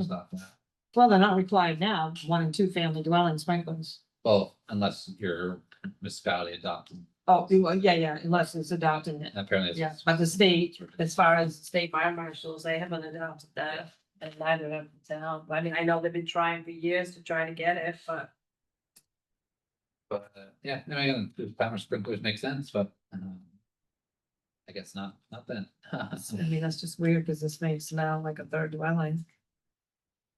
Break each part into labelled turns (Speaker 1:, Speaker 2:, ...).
Speaker 1: It's not that.
Speaker 2: Well, they're not required now, one and two family dwelling sprinklers.
Speaker 1: Well, unless your municipality adopted,
Speaker 2: Oh, you- well, yeah, yeah, unless it's adopting it.
Speaker 1: apparently. it's-
Speaker 2: Yeah, but the state, as far as state fire marshals, they haven't adopted that. And neither have the town. I mean, I know they've been trying for years to try to get it, but
Speaker 1: But, uh, yeah, I mean, the timer sprinklers make sense, but, um. I guess not, not then.
Speaker 2: I mean, that's just weird because this makes now like a third dwelling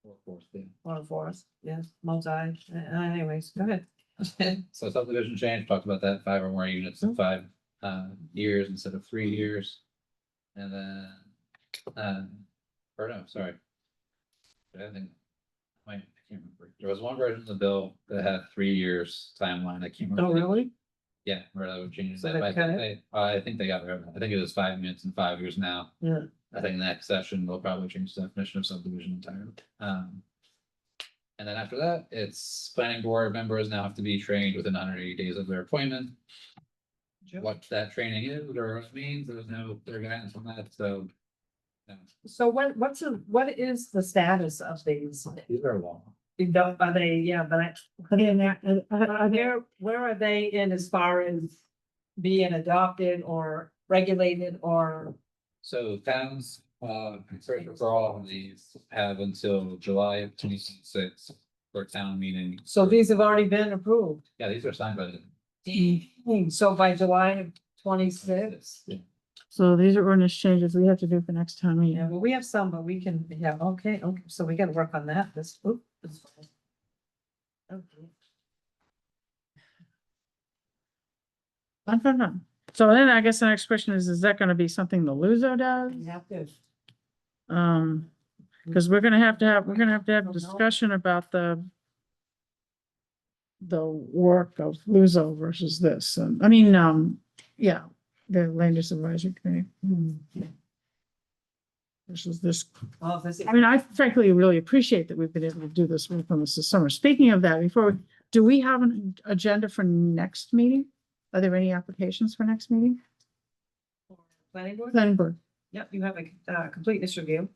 Speaker 2: Mm-hmm.
Speaker 1: Of course, yeah.
Speaker 2: or a fourth. Yeah, multi. Uh, Anyways, go ahead.
Speaker 1: So subdivision change, talked about that, five or more units in
Speaker 2: Mhm.
Speaker 1: five uh years instead of three years. And then, um, or no, sorry. I think, wait, I can't remember. There was one version of the bill that had three years timeline. I can't remember.
Speaker 2: Oh, really?
Speaker 1: Yeah, where that would change
Speaker 2: So
Speaker 1: that.
Speaker 2: they
Speaker 1: but I
Speaker 2: cut
Speaker 1: think they, I think they got rid of it. I think it was five minutes and five years now.
Speaker 2: Yeah.
Speaker 1: I think next session they'll probably change the definition of subdivision entirely. Um. And then after that, it's planning board members now have to be trained within hundred eighty days of their appointment.
Speaker 2: Sure.
Speaker 1: What that training is or what it means, there's no, they're gonna answer that, so. no.
Speaker 2: So what, what's, the- what is the status of these?
Speaker 1: These are long.
Speaker 2: You don't, are they, yeah, but I, are they in that, uh, are are there, where are they in as far as being adopted or regulated or?
Speaker 1: So towns, uh, search for all of these have until July of twenty six for town meeting.
Speaker 2: So these have already been approved.
Speaker 1: Yeah, these are signed by the
Speaker 3: Mm-hmm.
Speaker 2: So by July of twenty-six,
Speaker 1: Yeah.
Speaker 3: So these are ordinance changes we have to do for next time
Speaker 2: yeah,
Speaker 3: meeting.
Speaker 2: well, we have some, but we can, yeah, okay, okay, so we gotta work on that, this, oop. this- Okay.
Speaker 3: I don't know. So then I guess the next question is, is that gonna be something the Luso does?
Speaker 2: We have to-
Speaker 3: Um, cause we're gonna have to have, we're gonna have to have
Speaker 2: Don't know.
Speaker 3: a discussion about the the work of Luso versus this, and, I mean, um, yeah, the Land Use Advisory Committee
Speaker 2: hmm,
Speaker 3: versus this.
Speaker 2: well, if this-
Speaker 3: I mean, I frankly really appreciate that we've been able to do this work on this this summer. Speaking of that, before, we- do we have an agenda for next meeting? Are there any applications for next meeting?
Speaker 2: Planning board?
Speaker 3: Planning board,
Speaker 2: Yep, you have a uh, completeness review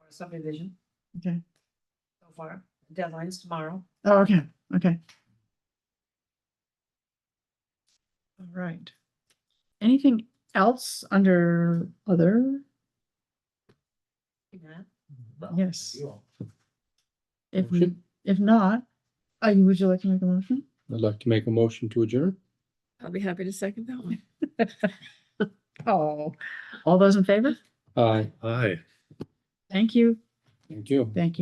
Speaker 2: or subdivision
Speaker 3: okay.
Speaker 2: so far. Deadline's tomorrow.
Speaker 3: Oh, okay, okay. All right. Anything else under other?
Speaker 2: Yeah.
Speaker 1: Well,
Speaker 3: Yes.
Speaker 1: you all.
Speaker 3: If we,
Speaker 4: Motion?
Speaker 3: if not, I, would you like to make a motion?
Speaker 4: I'd like to make a motion to adjourn.
Speaker 5: I'll be happy to second that one.
Speaker 3: Oh, all those in favor?
Speaker 4: Aye. Aye.
Speaker 3: Thank you,
Speaker 4: Thank you.
Speaker 3: thank you.